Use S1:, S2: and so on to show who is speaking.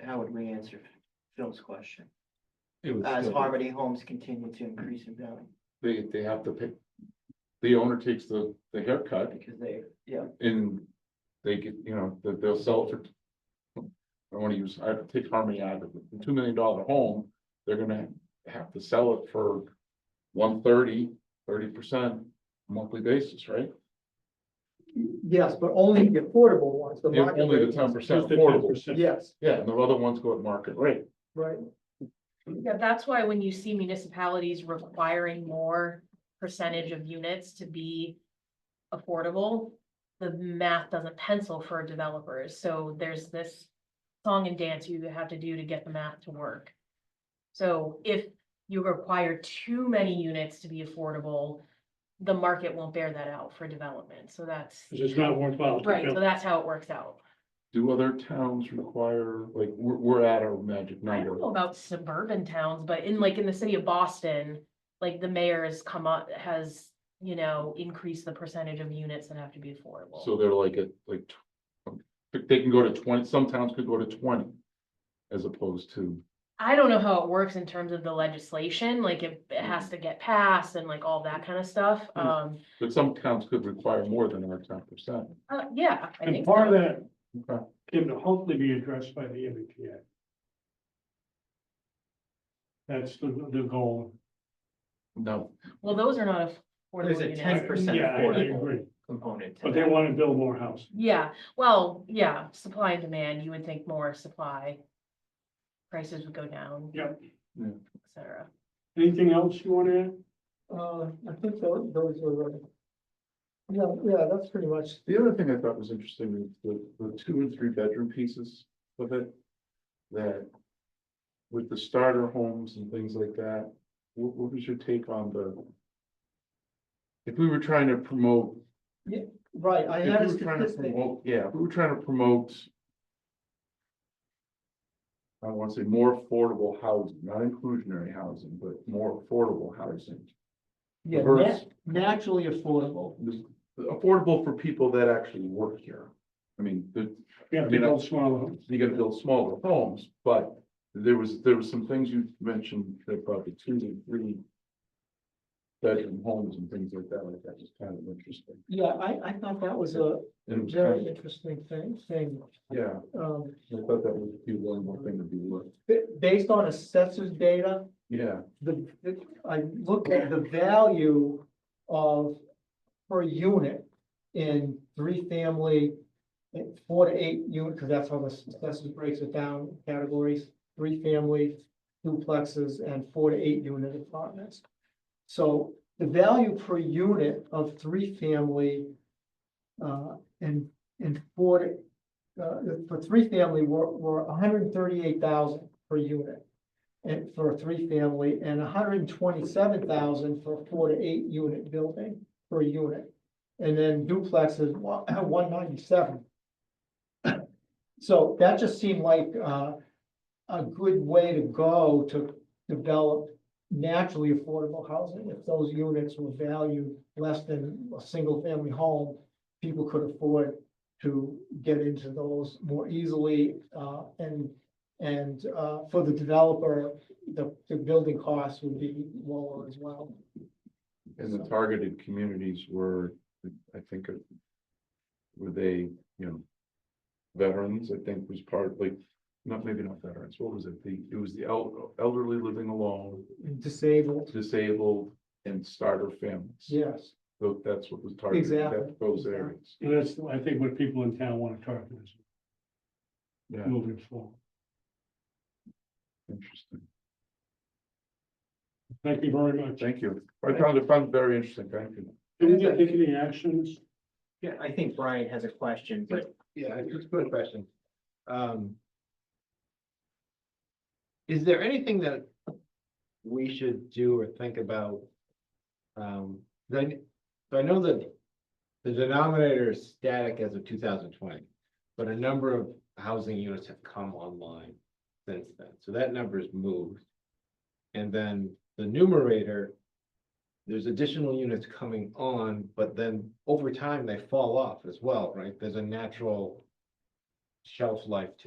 S1: how would we answer Phil's question?
S2: It would
S1: Uh, As
S2: still be-
S1: Harmony homes continue to increase in value,
S2: They, they have to pick, the owner takes the, the haircut
S1: because they, yeah,
S2: and they get, you know, that they'll sell it for. I wanna use, I take Harmony out of the two million dollar home, they're gonna have to sell it for one thirty, thirty percent monthly basis, right?
S3: Yes, but only the affordable ones, the
S2: Yeah,
S3: market
S2: Only the
S3: rate.
S2: ten percent
S4: Just the
S2: affordable,
S4: 10%.
S3: Yes,
S2: yeah, and the other ones go at market rate.
S3: right.
S5: Yeah, that's why when you see municipalities requiring more percentage of units to be affordable, the math doesn't pencil for developers, so there's this song and dance you have to do to get the math to work. So if you require too many units to be affordable, the market won't bear that out for development, so that's,
S4: Cause it's not worthwhile. to
S5: right, so
S4: build.
S5: that's how it works out.
S2: Do other towns require, like, we're, we're at our magic
S5: I
S2: number,
S5: don't know about suburban towns, but in like in the city of Boston, like the mayor has come up, has, you know, increased the percentage of units that have to be affordable.
S2: so they're like, at like. tw- um, They can go to twenty, some towns could go to twenty. As opposed to,
S5: I don't know how it works in terms of the legislation, like if it has to get passed and like all that kind of stuff.
S2: Mm.
S5: Um,
S2: but some towns could require more than our ten percent.
S5: uh, yeah, I
S4: And
S5: think
S4: part of
S5: so.
S4: that
S2: Okay.
S4: can hopefully be addressed by the E MBTA. That's the, the goal.
S2: No,
S5: Well, those are not
S1: There's
S5: affordable
S1: a
S5: units.
S1: 10%
S4: Yeah, I I
S1: affordable.
S4: agree,
S1: component. to
S4: but they
S1: that.
S4: wanna build more houses.
S5: Yeah, well, yeah, supply and demand, you would think more supply. Prices would go down.
S4: Yep.
S2: Yeah.
S5: Et cetera.
S4: Anything else you wanna add?
S3: Uh, I think tho- those were. uh, Yeah, yeah, that's pretty much,
S2: the other thing I thought was interesting, is the, the two and three bedroom pieces of it. That. With the starter homes and things like that, what, what was your take on the? If we were trying to promote
S3: right, I
S2: If
S3: had a
S2: we were trying to
S3: statistic,
S2: promote, yeah, if we were trying to promote. I don't wanna say more affordable housing, not inclusionary housing, but more affordable housing.
S3: yeah,
S2: Versus
S3: nat- naturally affordable.
S2: this- affordable for people that actually work here. I mean, the,
S4: You have
S2: I
S4: to
S2: mean, I-
S4: build smaller homes.
S2: you gotta build smaller homes, but there was, there was some things you mentioned, that probably two and three. Bedroom homes and things like that, like that was kind of interesting.
S3: Yeah, I, I thought that was a
S2: And it was
S3: very
S2: kind of,
S3: interesting thing, thing,
S2: yeah,
S3: um,
S2: I thought that would be one more thing to be looked,
S3: ba- based on assessors data.
S2: yeah.
S3: the, the- I looked at the value of per unit in three family. in Four to eight unit, because that's how the assessors breaks it down, categories, three family duplexes and four to eight unit apartments. So the value per unit of three family. Uh, and, and four, to- uh, for three family were, were hundred and thirty-eight thousand per unit and for a three family and hundred and twenty-seven thousand for a four to eight unit building per unit. And then duplexes, one ninety-seven. So that just seemed like, uh, a good way to go to develop naturally affordable housing. If those units were valued less than a single family home, people could afford to get into those more easily, uh, and and uh, for the developer, the, the building costs would be lower as well.
S2: And the
S3: So-
S2: targeted communities were, I think, uh, were they, you know, veterans, I think was part, like, not, maybe not veterans, what was it? The, it was the el- elderly living alone,
S3: Disabled,
S2: disabled and starter families.
S3: yes,
S2: So that's what was targeted,
S3: Exactly.
S2: that, those areas.
S4: And that's, I think what people in town wanna target is
S2: Yeah,
S4: moving forward.
S2: interesting.
S4: Thank you very much.
S2: Thank you. I found it, found it very interesting. Thank you.
S4: Did we get- take any actions?
S1: Yeah, I think Brian has a question, but
S6: Yeah, just a quick question. Um. Is there anything that we should do or think about? Um, then, so I know that the denominator is static as of two thousand twenty, but a number of housing units have come online since then, so that number has moved. And then the numerator, there's additional units coming on, but then over time they fall off as well, right? There's a natural shelf life to